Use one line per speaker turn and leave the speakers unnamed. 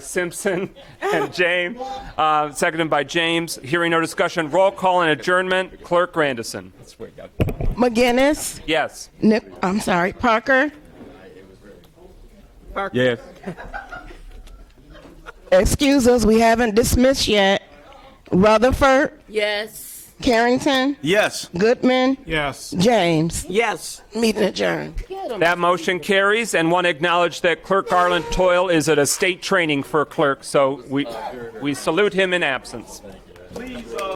Simpson and James. Uh, seconded by James. Hearing no discussion, roll call and adjournment. Clerk Grandison.
McGinnis,
Yes.
Nick, I'm sorry, Parker,
Yes.
excuse us, we haven't dismissed yet. Rutherford,
Yes.
Carrington,
Yes.
Goodman,
Yes.
James.
Yes.
Meeting adjourned.
That motion carries, and one acknowledged that Clerk Garland Toyle is at a state training for clerk, so we, we salute him in absence.